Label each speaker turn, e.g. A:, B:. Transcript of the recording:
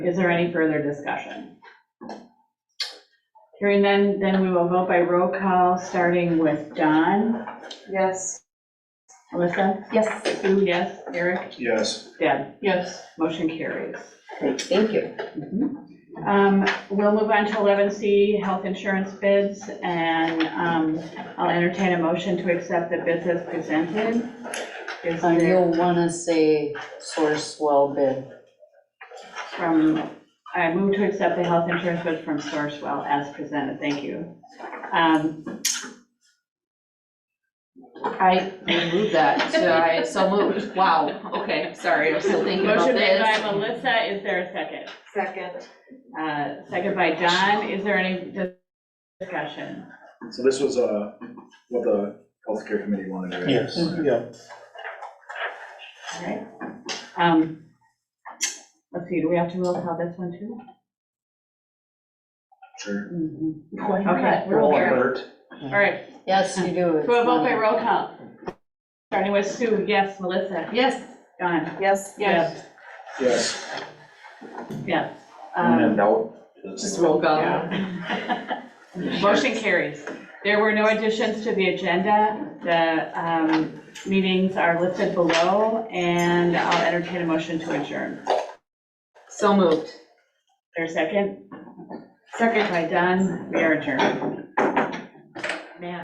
A: Is there any further discussion? Hearing then, then we will vote by roll call, starting with John,
B: Yes.
A: Alyssa,
B: Yes.
A: Sue, yes, Eric,
C: Yes,
A: Deb.
B: Yes.
A: Motion carries.
B: Great, thank you.
A: Um, We'll move on to 11C, health insurance bids, and um, I'll entertain a motion to accept the bids as presented. Is
D: Um,
A: there
D: You'll wanna say source well bid.
A: from, I move to accept the health insurance bid from Sourcewell as presented. Thank you. Um,
B: I removed that, so I, so moved. Wow, okay, sorry, I was still thinking about
A: Motion made by
B: this.
A: Melissa, is there a second?
B: Second.
A: Uh, Second by John, is there any di- discussion?
C: so this was, uh, what the healthcare committee wanted, right?
E: Yes,
C: Okay.
E: yeah.
A: All right. Um, Let's see, do we have to roll call this one too?
C: Sure.
D: Mhm.
A: Okay,
B: Roll
A: roll call.
E: Bert.
A: All right,
D: Yes, you do.
A: so we'll vote by roll call. Starting with Sue, yes, Melissa,
B: Yes.
A: John.
B: Yes.
A: Yes.
C: Yes,
A: Yes.
E: And
A: Um,
E: then doubt.
B: Just roll call.
A: Yeah. Motion carries. There were no additions to the agenda. The um, meetings are listed below, and I'll entertain a motion to adjourn.
B: So moved.
A: There's a second? Second. By Dunn, we are adjourned.